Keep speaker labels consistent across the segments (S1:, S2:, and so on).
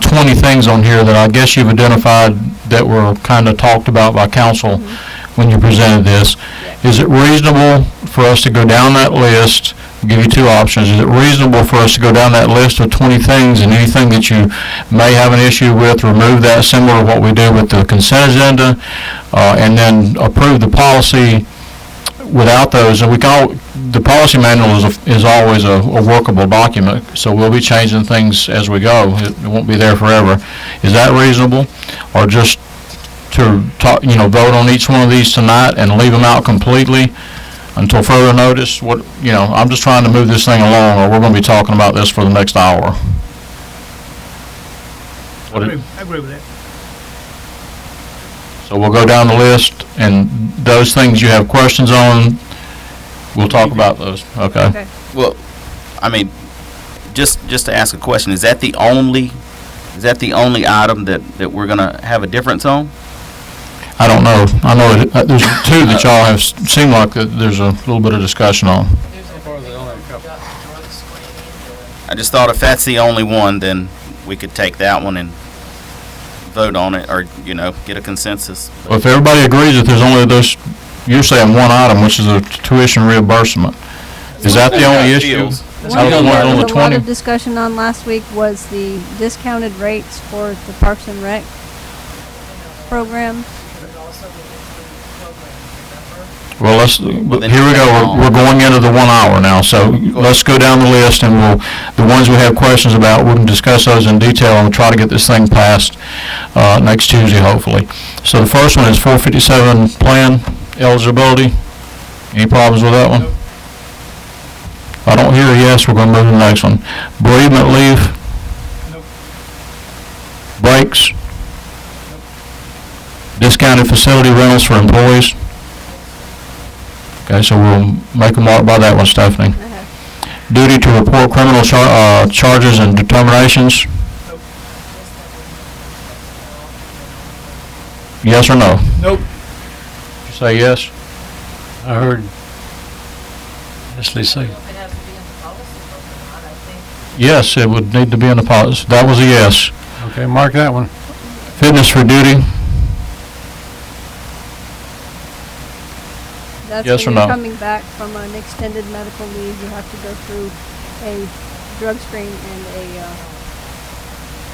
S1: 20 things on here that I guess you've identified that were kind of talked about by council when you presented this. Is it reasonable for us to go down that list? I'll Give you two options. Is it reasonable for us to go down that list of 20 things and anything that you may have an issue with, remove that similar to what we do with the consent agenda, uh, and then approve the policy without those, and we can, al- the policy manual is, a- is always a a workable document, so we'll be changing things as we go. It it won't be there forever. Is that reasonable? Or just to talk, you know, vote on each one of these tonight and leave them out completely until further notice? What, you know, I'm just trying to move this thing along, or we're gonna be talking about this for the next hour. What
S2: I
S1: it-
S2: agree, I agree with that.
S1: So we'll go down the list, and those things you have questions on, we'll talk about those, okay?
S3: Okay.
S4: Well, I mean, just, just to ask a question, is that the only, is that the only item that, that we're gonna have a difference on?
S1: I don't know. I know it- uh, there's two that y'all have, s- seem like that there's a little bit of discussion on.
S4: I just thought if that's the only one, then we could take that one and vote on it, or, you know, get a consensus.
S1: Well, If everybody agrees that there's only those, you're saying one item, which is a tuition reimbursement. Is that the only issue?
S4: Fields.
S1: Is that the one on the
S3: There was a lot
S1: 20?
S3: of discussion on last week was the discounted rates for the Parks and Rec program.
S1: Well, let's, here we go, We're- we're going into the one hour now, so let's go down the list and we'll, the ones we have questions about, we can discuss those in detail and try to get this thing passed uh, next Tuesday, hopefully. So the first one is 457 plan eligibility. Any problems with that one? If I don't hear a yes, we're going to move to the next one. Bereavement leave?
S2: Nope.
S1: Breaks? Discounted facility rentals for employees? Okay, so we'll make a mark by that one, Stephanie.
S3: Okay.
S1: Duty to report criminal char, uh, charges and determinations? Yes or no?
S2: Nope.
S1: You Say yes?
S5: I heard Leslie say,
S1: Yes, it would need to be in the policy. That was a yes.
S5: okay, mark that one.
S1: Fitness for duty?
S3: That's
S1: Yes
S3: when
S1: or
S3: you're
S1: no?
S3: coming back from an extended medical leave, you have to go through a drug screen and a, uh.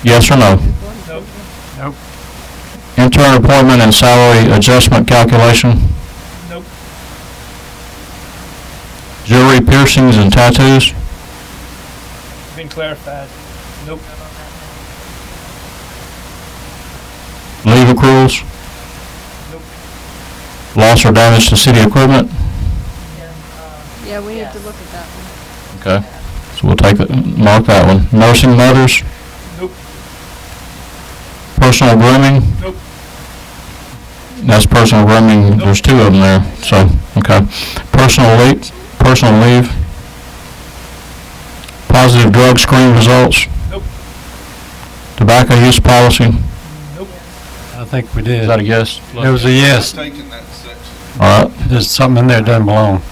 S1: Yes or no?
S3: employment
S2: Nope.
S3: review.
S5: Nope.
S1: Intern appointment and salary adjustment calculation?
S2: Nope.
S1: Jewelry piercings and tattoos?
S2: Been clarified. Nope.
S1: Leave accruals?
S2: Nope.
S1: Loss or damage to city equipment?
S3: Yeah, we need to look at that one.
S1: Okay, so we'll take, that mark that one. Nursing mothers,
S2: Nope.
S1: personal grooming,
S2: Nope.
S1: that's personal grooming, there's two of them there, so, okay. Personal leave, personal leave. Positive drug screen results,
S2: Nope.
S1: tobacco use policy,
S2: Nope.
S5: I think we
S1: is
S5: did.
S1: that a yes?
S5: It was a yes.
S6: Taking that section
S1: All right.
S5: There's something in there that doesn't belong.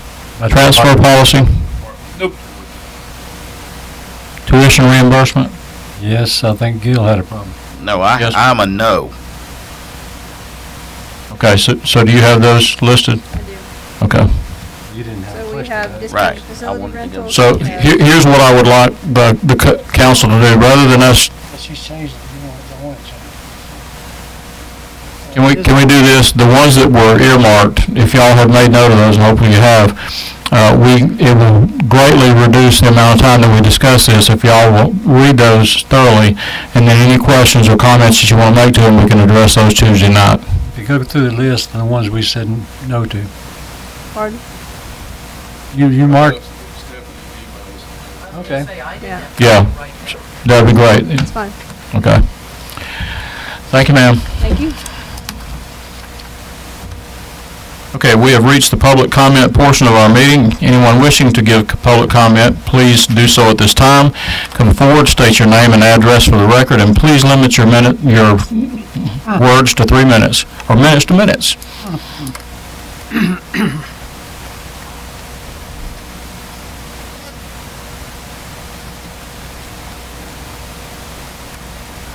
S5: That's
S1: Transfer
S5: why-
S1: policy,
S2: Nope.
S1: tuition reimbursement,
S5: Yes, I think Gil had a problem.
S4: No, I,
S1: Yes.
S4: I'm a no.
S1: okay, so, so do you have those listed?
S3: I do.
S1: Okay.
S5: You didn't have a
S3: So we
S5: question.
S3: have
S5: about it.
S4: Right. I
S3: discounted facility
S4: wanted to go-
S3: rentals.
S1: So
S3: we
S1: he-
S3: have-
S1: here's what I would like the, the co- council to do, rather than us, can we, can we do this, the ones that were earmarked, if y'all have made note of those, and hopefully you have, uh, we, it will greatly reduce the amount of time that we discuss this, if y'all will read those thoroughly, and then any questions or comments that you want to make to them, we can address those Tuesday night.
S5: If you go through the list, the ones we said n- no to,
S3: Pardon?
S5: you, you mark,
S6: Okay.
S5: okay.
S3: Yeah,
S1: Yeah, that'd be great,
S3: it's fine.
S1: okay. Thank you, ma'am.
S3: Thank you.
S1: Okay, we have reached the public comment portion of our meeting. Anyone wishing to give public comment, please do so at this time. Come forward, state your name and address for the record, and please limit your minute, your words to three minutes, or minutes to minutes.